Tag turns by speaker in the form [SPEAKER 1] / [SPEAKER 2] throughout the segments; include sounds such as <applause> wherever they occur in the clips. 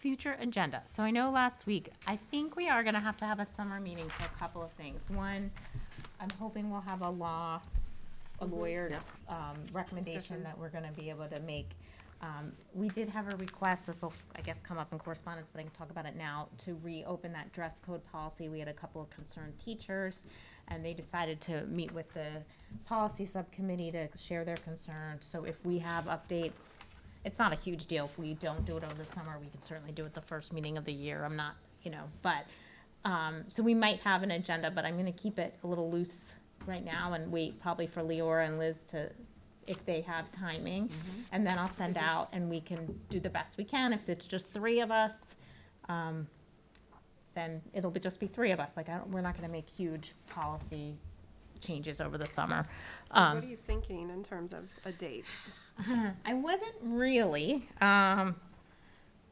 [SPEAKER 1] future agenda. So I know last week, I think we are gonna have to have a summer meeting for a couple of things. One, I'm hoping we'll have a law, a lawyer, um, recommendation
[SPEAKER 2] Discussion.
[SPEAKER 1] that we're gonna be able to make. Um, we did have a request, this'll, I guess, come up in correspondence, but I can talk about it now, to reopen that dress code policy. We had a couple of concerned teachers, and they decided to meet with the policy subcommittee to share their concerns. So if we have updates, it's not a huge deal. If we don't do it over the summer, we can certainly do it the first meeting of the year. I'm not, you know, but, um, so we might have an agenda, but I'm gonna keep it a little loose right now and wait probably for Leora and Liz to, if they have timing.
[SPEAKER 2] Mm-hmm.
[SPEAKER 1] And then I'll send out and we can do the best we can. If it's just three of us, um, then it'll be, just be three of us. Like, I don't, we're not gonna make huge policy changes over the summer.
[SPEAKER 2] So
[SPEAKER 1] Um,
[SPEAKER 2] What are you thinking in terms of a date?
[SPEAKER 1] I wasn't really. Um,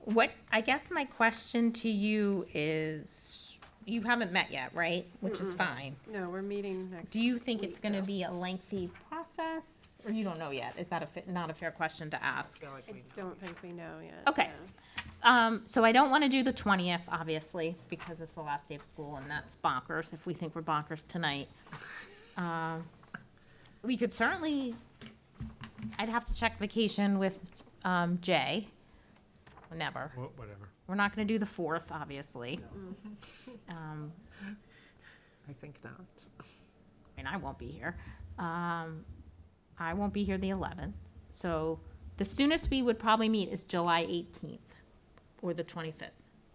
[SPEAKER 1] what I guess my question to you is you haven't met yet, right? Which is fine.
[SPEAKER 2] No, we're meeting next.
[SPEAKER 1] Do you think it's
[SPEAKER 2] week,
[SPEAKER 1] going to
[SPEAKER 2] though.
[SPEAKER 1] be a lengthy process or you don't know yet? Is that a fa- not a fair question to ask?
[SPEAKER 2] I don't think we know yet.
[SPEAKER 1] Okay.
[SPEAKER 2] no.
[SPEAKER 1] Um, so I don't want to do the 20th, obviously, because it's the last day of school and that's bonkers if we think we're bonkers tonight. <laughs> Um, we could certainly, I'd have to check vacation with um, Jay. Never.
[SPEAKER 3] Wha- Whatever.
[SPEAKER 1] We're not going to do the 4th, obviously. Um,
[SPEAKER 4] I think not.
[SPEAKER 1] I mean, I won't be here. Um, I won't be here the 11th. So the soonest we would probably meet is July 18th or the 25th.
[SPEAKER 4] I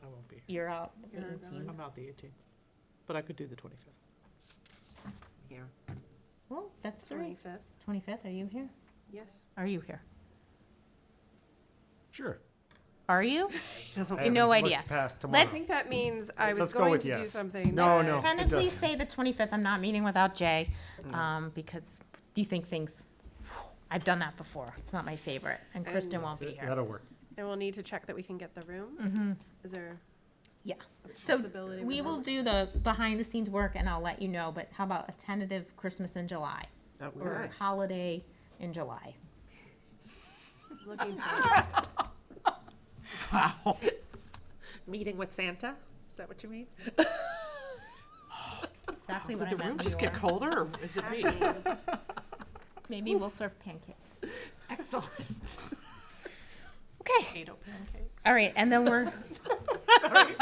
[SPEAKER 4] won't be here.
[SPEAKER 1] You're out the
[SPEAKER 2] You're
[SPEAKER 1] 18th.
[SPEAKER 4] I'm out the 18th, but I could do the 25th. Here.
[SPEAKER 1] Well, that's three.
[SPEAKER 2] Twenty-fifth,
[SPEAKER 1] Twenty-fifth, are you here?
[SPEAKER 2] yes.
[SPEAKER 1] Are you here?
[SPEAKER 3] Sure.
[SPEAKER 1] Are you?
[SPEAKER 3] I
[SPEAKER 1] have
[SPEAKER 3] haven't
[SPEAKER 1] no
[SPEAKER 3] looked
[SPEAKER 1] idea.
[SPEAKER 3] Past
[SPEAKER 1] Let's-
[SPEAKER 2] I
[SPEAKER 3] tomorrow.
[SPEAKER 2] think that means I was
[SPEAKER 3] Let's go
[SPEAKER 2] going
[SPEAKER 3] with
[SPEAKER 2] to do
[SPEAKER 3] yes.
[SPEAKER 2] something.
[SPEAKER 3] <laughs> No,
[SPEAKER 2] that-
[SPEAKER 3] no. it
[SPEAKER 1] Tentatively
[SPEAKER 3] doesn't. Mm.
[SPEAKER 1] say the twenty-fifth, I'm not meeting without Jay, um, because do you think things, I've done that before, it's not my favorite, and Kristen
[SPEAKER 2] And-
[SPEAKER 1] won't be here.
[SPEAKER 3] That'll work.
[SPEAKER 2] And we'll need to check that we can get the room.
[SPEAKER 1] Mm-hmm.
[SPEAKER 2] Is there
[SPEAKER 1] Yeah.
[SPEAKER 2] a
[SPEAKER 1] So
[SPEAKER 2] possibility?
[SPEAKER 1] We will
[SPEAKER 2] remote?
[SPEAKER 1] do the behind-the-scenes work and I'll let you know, but how about a tentative Christmas in July,
[SPEAKER 4] That would
[SPEAKER 1] or
[SPEAKER 4] work.
[SPEAKER 1] holiday in July? <laughs>
[SPEAKER 2] Looking for,
[SPEAKER 4] Wow. Meeting with Santa? Is that what you mean?
[SPEAKER 1] That's Exactly
[SPEAKER 4] Did
[SPEAKER 1] what I
[SPEAKER 4] the room
[SPEAKER 1] meant,
[SPEAKER 4] just get
[SPEAKER 1] Leora.
[SPEAKER 4] colder, or is it me?
[SPEAKER 1] Maybe we'll serve pancakes.
[SPEAKER 4] <laughs> Excellent.
[SPEAKER 1] Okay.
[SPEAKER 2] potato pancakes.
[SPEAKER 1] All right, and then
[SPEAKER 4] <laughs>
[SPEAKER 1] we're. <laughs> Sorry.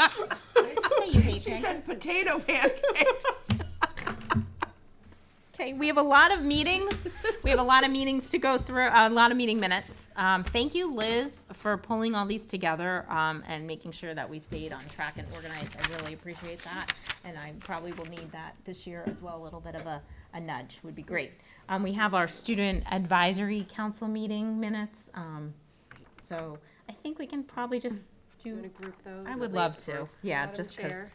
[SPEAKER 1] You hate pancakes.
[SPEAKER 4] <laughs> potato pancakes.
[SPEAKER 1] Okay, we have a lot of meetings. We have a lot of meetings to go through, a lot of meeting minutes. Um, thank you, Liz, for pulling all these together, um, and making sure that we stayed on track and organized. I really appreciate that. And I probably will need that this year as well, a little bit of a, a nudge would be great. Um, we have our student advisory council meeting minutes, um, so I think we can probably just
[SPEAKER 2] You want
[SPEAKER 1] do,
[SPEAKER 2] to group those?
[SPEAKER 1] I
[SPEAKER 2] at
[SPEAKER 1] would love
[SPEAKER 2] least?
[SPEAKER 1] to, yeah,
[SPEAKER 2] Madam
[SPEAKER 1] just
[SPEAKER 2] Chair.
[SPEAKER 1] cause,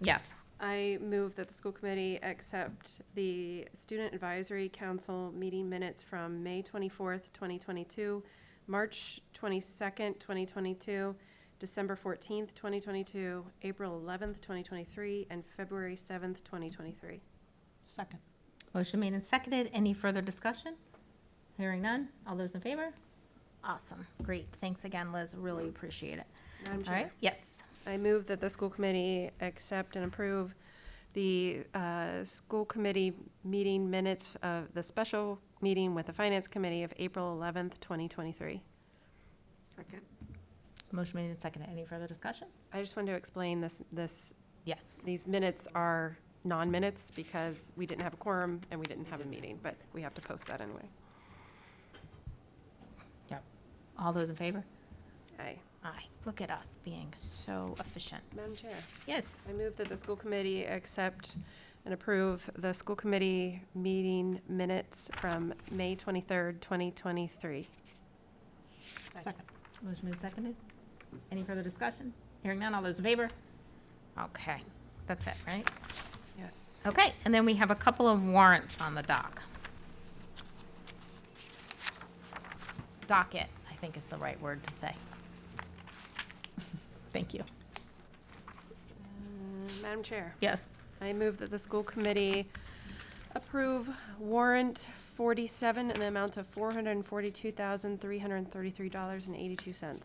[SPEAKER 1] yes.
[SPEAKER 2] I move that the school committee accept the Student Advisory Council meeting minutes from May twenty-fourth, twenty twenty-two, March twenty-second, twenty twenty-two, December fourteenth, twenty twenty-two, April eleventh, twenty twenty-three, and February seventh, twenty twenty-three.
[SPEAKER 4] Second.
[SPEAKER 1] Motion made and seconded. Any further discussion? Hearing none. All those in favor? Awesome. Great. Thanks again, Liz. Really appreciate it.
[SPEAKER 2] Madam
[SPEAKER 1] All right?
[SPEAKER 2] Chair,
[SPEAKER 1] Yes.
[SPEAKER 2] I move that the school committee accept and approve the, uh, school committee meeting minutes of the special meeting with the Finance Committee of April eleventh, twenty twenty-three.
[SPEAKER 4] Second.
[SPEAKER 1] Motion made and seconded. Any further discussion?
[SPEAKER 2] I just wanted to explain this, this
[SPEAKER 1] Yes.
[SPEAKER 2] these minutes are non-minutes because we didn't have a quorum and we didn't have a meeting, but we have to post that anyway.
[SPEAKER 1] All those in favor?
[SPEAKER 2] Aye.
[SPEAKER 1] Aye. Look at us being so efficient.
[SPEAKER 2] Madam Chair,
[SPEAKER 1] Yes.
[SPEAKER 2] I move that the school committee accept and approve the school committee meeting minutes from May 23rd, 2023.
[SPEAKER 4] Second.
[SPEAKER 1] Motion made and seconded. Any further discussion? Hearing none. All those in favor? Okay. That's it, right?
[SPEAKER 2] Yes.
[SPEAKER 1] Okay. And then we have a couple of warrants on the dock. Docket, I think is the right word to say. <laughs> Thank you.
[SPEAKER 2] Madam Chair,
[SPEAKER 1] Yes.
[SPEAKER 2] I move that the school committee approve warrant 47 in the amount of $442,333.82.
[SPEAKER 4] Second.